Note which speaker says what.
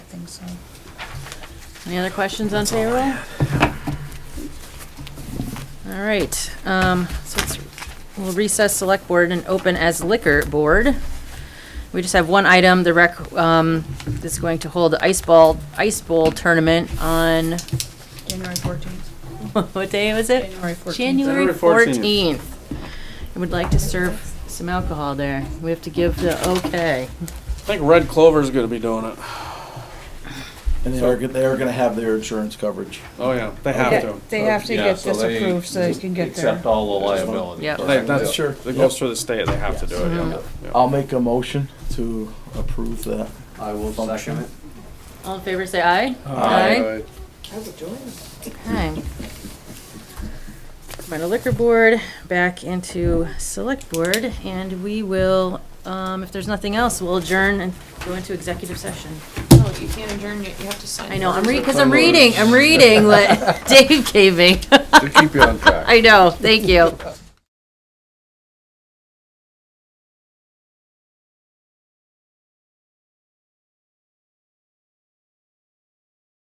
Speaker 1: think so.
Speaker 2: Any other questions on payroll? All right, um, so it's, we'll recess select board and open as liquor board. We just have one item, the rec, um, is going to hold the ice ball, ice bowl tournament on,
Speaker 1: January fourteenth.
Speaker 2: what day was it?
Speaker 1: January 14th.
Speaker 2: January
Speaker 3: January 14th.
Speaker 2: fourteenth. I would like to serve some alcohol there. We have to give the okay.
Speaker 3: I think Red Clover's gonna be doing it.
Speaker 4: And they are, go- they are gonna have their insurance coverage.
Speaker 3: Oh, yeah, they have to.
Speaker 1: They have to
Speaker 5: Oh, Yeah,
Speaker 1: get
Speaker 5: so
Speaker 1: this
Speaker 5: they
Speaker 1: approved so they can get their.
Speaker 5: Accept all the liability.
Speaker 2: Yep.
Speaker 3: They, that's,
Speaker 4: Sure.
Speaker 3: it goes through the state, they have to do it, yeah. Yeah.
Speaker 4: I'll make a motion to approve that.
Speaker 5: I will
Speaker 4: second
Speaker 5: it.
Speaker 2: All in favor, say aye.
Speaker 3: Aye.
Speaker 2: Okay. From our liquor board, back into select board, and we will, um, if there's nothing else, we'll adjourn and go into executive session.
Speaker 6: No, you can't adjourn yet, you have to sign.
Speaker 2: I know, I'm reading, because I'm reading, I'm reading what Dave gave me.
Speaker 5: To keep you on track.
Speaker 2: I know, thank you.